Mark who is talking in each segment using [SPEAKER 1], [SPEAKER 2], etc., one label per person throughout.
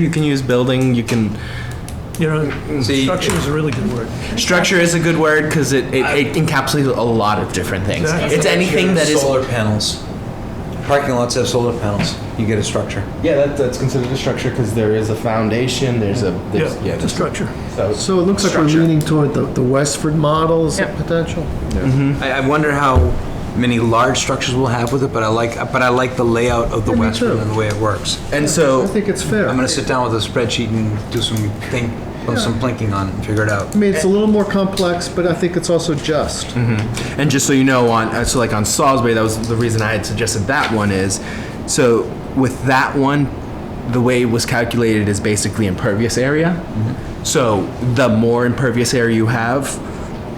[SPEAKER 1] You can use building, you can,
[SPEAKER 2] You know,
[SPEAKER 1] See-
[SPEAKER 2] structure is a really good word.
[SPEAKER 1] structure is a good word because it, it, it encapsulates a lot of different things.
[SPEAKER 2] Exactly.
[SPEAKER 1] It's anything that is,
[SPEAKER 3] Solar panels. Parking lots have solar panels. You get a structure.
[SPEAKER 4] Yeah, that, that's considered a structure because there is a foundation, there's a, there's,
[SPEAKER 2] Yeah,
[SPEAKER 4] yeah,
[SPEAKER 2] the
[SPEAKER 4] there's,
[SPEAKER 2] structure.
[SPEAKER 4] so.
[SPEAKER 5] So it looks like we're
[SPEAKER 4] Structure.
[SPEAKER 5] leaning toward the, the Westford model as a potential?
[SPEAKER 3] I, I wonder how many large structures we'll have with it, but I like, but I like the layout of the
[SPEAKER 5] me
[SPEAKER 3] Westwood
[SPEAKER 5] too.
[SPEAKER 3] and the way it works.
[SPEAKER 1] and
[SPEAKER 5] I
[SPEAKER 1] so,
[SPEAKER 5] think it's fair.
[SPEAKER 3] I'm
[SPEAKER 5] I
[SPEAKER 3] gonna sit down with a spreadsheet and do some think, some plinking on it and figure it out.
[SPEAKER 5] mean, it's a little more complex, but I think it's also just.
[SPEAKER 3] Mm-hmm.
[SPEAKER 1] and just so you know, on, uh, so like on Salisbury, that was the reason I had suggested that one is, so with that one, the way it was calculated is basically impervious area. So the more impervious area you have,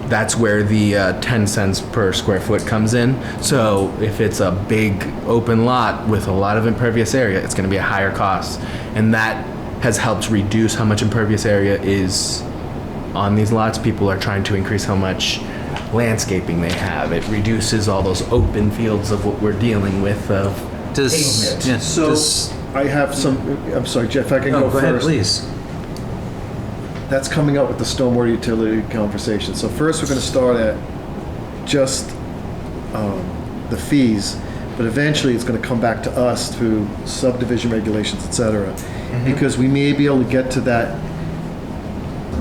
[SPEAKER 1] that's where the uh, 10 cents per square foot comes in. So if it's a big open lot with a lot of impervious area, it's going to be a higher cost. And that has helped reduce how much impervious area is on these lots. People are trying to increase how much landscaping they have. It reduces all those open fields of what we're dealing with of
[SPEAKER 3] Does, yeah,
[SPEAKER 5] So
[SPEAKER 3] does-
[SPEAKER 5] I have some, I'm sorry, Jeff, I can
[SPEAKER 3] no,
[SPEAKER 5] go
[SPEAKER 3] go ahead,
[SPEAKER 5] first.
[SPEAKER 3] please.
[SPEAKER 5] That's coming up with the stormwater utility conversation. So first, we're going to start at just um, the fees, but eventually, it's going to come back to us through subdivision regulations, et cetera.
[SPEAKER 1] Mm-hmm.
[SPEAKER 5] Because we may be able to get to that,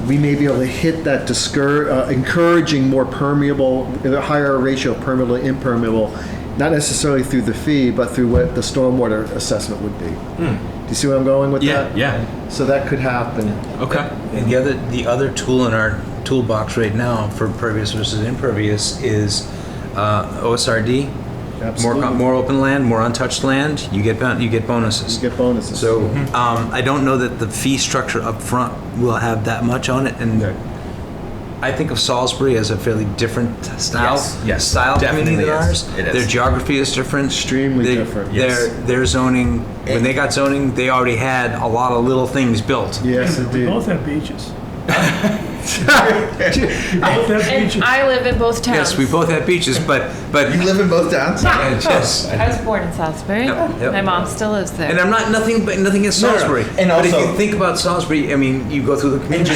[SPEAKER 5] we may be able to hit that discour, uh, encouraging more permeable, a higher ratio of permeable to impermeable, not necessarily through the fee, but through what the stormwater assessment would be. Do you see where I'm going with that?
[SPEAKER 1] Hmm. yeah.
[SPEAKER 5] So that could happen.
[SPEAKER 1] Okay.
[SPEAKER 3] And the other, the other tool in our toolbox right now for pervious versus impervious is uh, OSRD. More,
[SPEAKER 5] Absolutely.
[SPEAKER 3] co- more open land, more untouched land, you get, bon- you get bonuses.
[SPEAKER 5] You get bonuses.
[SPEAKER 3] So
[SPEAKER 4] Mm-hmm.
[SPEAKER 3] um, I don't know that the fee structure up front will have that much on it, and I think of Salisbury as a fairly different style.
[SPEAKER 1] Yes, yes,
[SPEAKER 3] style community than
[SPEAKER 1] definitely is.
[SPEAKER 3] ours.
[SPEAKER 1] It is.
[SPEAKER 3] Their geography is different.
[SPEAKER 5] Extremely
[SPEAKER 3] They-
[SPEAKER 5] different.
[SPEAKER 3] Their their zoning when they got zoning, they already had a lot of little things built.
[SPEAKER 5] yes,
[SPEAKER 2] We
[SPEAKER 5] indeed.
[SPEAKER 2] both have beaches. We both have beaches.
[SPEAKER 6] And I live in both towns.
[SPEAKER 3] Yes, we both have beaches, but but
[SPEAKER 4] You live in both towns?
[SPEAKER 3] yes.
[SPEAKER 6] I was born in Salisbury.
[SPEAKER 3] Yep, yep.
[SPEAKER 6] My mom still lives there.
[SPEAKER 3] And I'm not nothing but nothing against
[SPEAKER 4] No, no, no.
[SPEAKER 3] Salisbury.
[SPEAKER 4] And
[SPEAKER 3] but if
[SPEAKER 4] also-
[SPEAKER 3] you think about Salisbury, I mean, you go through the
[SPEAKER 4] And
[SPEAKER 3] community.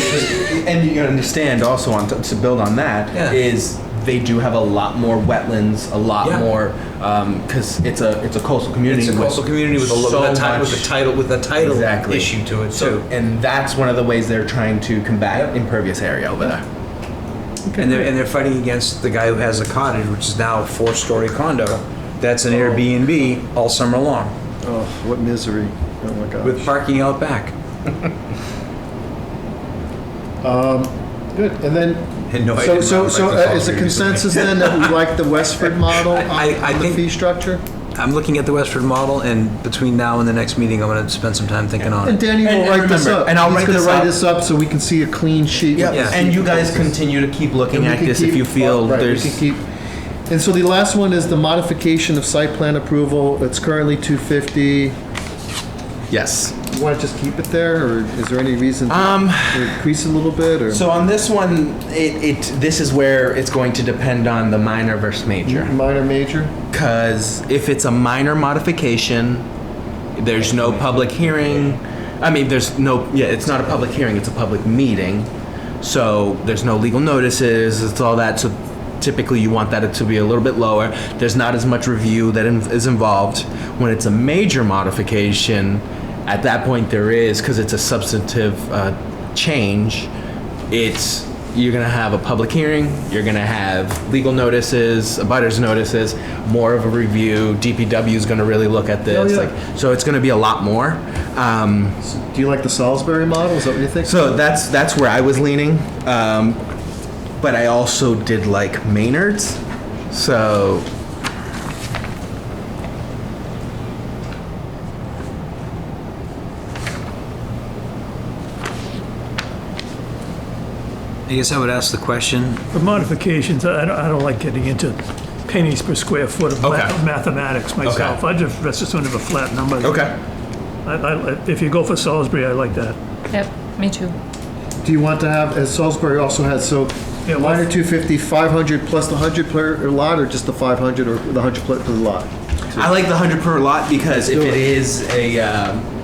[SPEAKER 4] you- and you understand also on to, to build on that is
[SPEAKER 3] Yeah.
[SPEAKER 4] they do have a lot more wetlands, a lot
[SPEAKER 3] Yeah.
[SPEAKER 4] more because it's a it's a coastal community.
[SPEAKER 3] It's a
[SPEAKER 4] with
[SPEAKER 3] coastal community with a
[SPEAKER 4] so
[SPEAKER 3] little with a ti- with
[SPEAKER 4] much-
[SPEAKER 3] a title with a title
[SPEAKER 4] Exactly.
[SPEAKER 3] issue to it
[SPEAKER 4] So,
[SPEAKER 3] too.
[SPEAKER 4] and that's one of the ways they're trying to combat impervious area over there.
[SPEAKER 3] And they're and they're fighting against the guy who has a cottage, which is now a four-story condo. That's an Airbnb all summer long
[SPEAKER 5] Oh, what misery. Oh my gosh.
[SPEAKER 3] with parking out back
[SPEAKER 5] Good. And then,
[SPEAKER 3] and no. I
[SPEAKER 5] so
[SPEAKER 3] didn't
[SPEAKER 5] so
[SPEAKER 3] like
[SPEAKER 5] so
[SPEAKER 3] the
[SPEAKER 5] uh, is the
[SPEAKER 3] Salisbury
[SPEAKER 5] consensus then that we like the Westford model on,
[SPEAKER 3] I- I
[SPEAKER 5] on the
[SPEAKER 3] think-
[SPEAKER 5] fee structure?
[SPEAKER 3] recently. I'm looking at the Westford model, and between now and the next meeting, I'm going to spend some time thinking on
[SPEAKER 5] And
[SPEAKER 3] it.
[SPEAKER 5] Danny will
[SPEAKER 4] And- and
[SPEAKER 5] write this
[SPEAKER 4] remember,
[SPEAKER 5] up.
[SPEAKER 4] and I'll
[SPEAKER 5] He's
[SPEAKER 4] write
[SPEAKER 5] gonna
[SPEAKER 4] this
[SPEAKER 5] write
[SPEAKER 4] up.
[SPEAKER 5] this up so we can see a clean sheet.
[SPEAKER 4] Yeah.
[SPEAKER 5] with
[SPEAKER 3] Yeah.
[SPEAKER 4] And you guys continue to keep looking
[SPEAKER 5] We
[SPEAKER 4] at
[SPEAKER 5] can
[SPEAKER 4] this if
[SPEAKER 5] keep-
[SPEAKER 4] you feel
[SPEAKER 5] right, we
[SPEAKER 4] there's.
[SPEAKER 5] can keep- And so the last one is the modification of site plan approval. It's currently 250.
[SPEAKER 1] Yes.
[SPEAKER 5] You want to just keep it there, or is there any reason to
[SPEAKER 4] Um,
[SPEAKER 5] to increase it a little bit? Or
[SPEAKER 4] So on this one, it, it this is where it's going to depend on the minor versus major.
[SPEAKER 5] minor, major?
[SPEAKER 1] Because if it's a minor modification, there's no public hearing. I mean, there's no, yeah, it's not a public hearing, it's a public meeting. So there's no legal notices, it's all that. So typically you want that to be a little bit lower. There's not as much review that in- is involved. When it's a major modification, at that point there is, because it's a substantive uh, change, it's you're gonna have a public hearing, you're gonna have legal notices, abutters notices, more of a review. DPW is gonna really look at this,
[SPEAKER 5] Oh, yeah.
[SPEAKER 1] like so it's gonna be a lot more. Um,
[SPEAKER 5] Do you like the Salisbury model? Is that what you think?
[SPEAKER 1] so that's that's where I was leaning, um, but I also did like Maynard's, so
[SPEAKER 3] I guess I would ask the question.
[SPEAKER 2] The modifications, I don't, I don't like getting into pennies per square foot of
[SPEAKER 1] Okay.
[SPEAKER 2] math- of mathematics myself. I just, that's just sort of a flat number. I- I- If you go for Salisbury, I like that.
[SPEAKER 6] Yep, me too.
[SPEAKER 5] Do you want to have, as Salisbury also has, so
[SPEAKER 2] Yeah,
[SPEAKER 5] minor
[SPEAKER 2] what-
[SPEAKER 5] 250, 500 plus the 100 per lot, or just the 500 or the 100 pl- per lot?
[SPEAKER 1] I like the hundred per lot because if
[SPEAKER 5] do
[SPEAKER 1] it
[SPEAKER 5] it.
[SPEAKER 1] is a um,